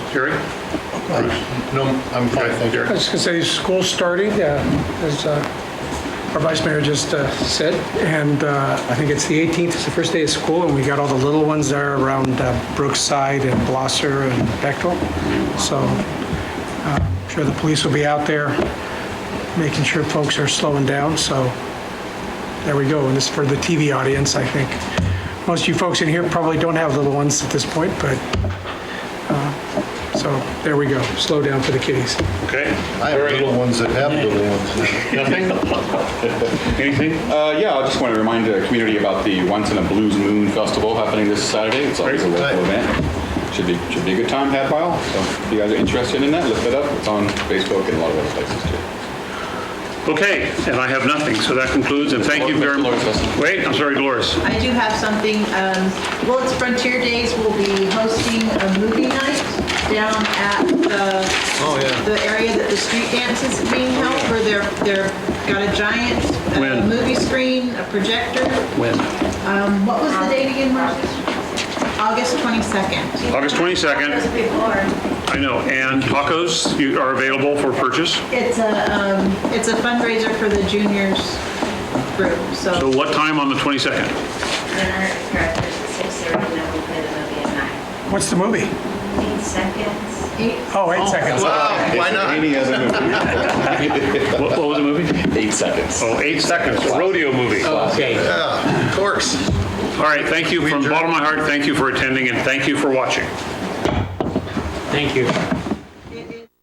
Jerry? No, I'm fine, thank you. I was going to say, school's starting, uh, as uh, our vice mayor just uh, said, and uh, I think it's the 18th, it's the first day of school, and we got all the little ones there around uh, Brookside and Blosser and Bechtel. So uh, I'm sure the police will be out there making sure folks are slowing down, so there we go. And this is for the TV audience, I think. Most of you folks in here probably don't have little ones at this point, but, uh, so there we go. Slow down for the kiddies. Okay. I have little ones that have little ones. Nothing? Anything? Uh, yeah, I just want to remind the community about the Once in a Blues Moon Festival happening this Saturday. It's always a Great. local event. Should be, should be a good time had by all. So if you guys are interested in that, look it up. It's on Facebook and a lot of other places too. Okay, and I have nothing, so that concludes, and thank you very much. Dolores has- Wait, I'm sorry, Dolores. I do have something, um, Willits Frontier Days will be hosting a movie night down at the, yeah. the area that the street dance is being held, where they're, they're, got a giant uh, When? movie screen, a projector. When? Um, What was the date again, Marcy? August 22nd. August 22nd, I know, and tacos you- are available for purchase. It's a, um, it's a fundraiser for the juniors group, So so what time on the 22nd? Dinner is correct, there's a six thirty, and then we play the movie at nine. What's the movie? Eight seconds. eight, Oh, eight seconds. Wow, why not? Any other movie? What what was the movie? Eight seconds. Oh, eight seconds, rodeo movie. All Yeah, of course. right, thank you, from the bottom of my heart, thank you for attending, and thank you for watching. Thank you.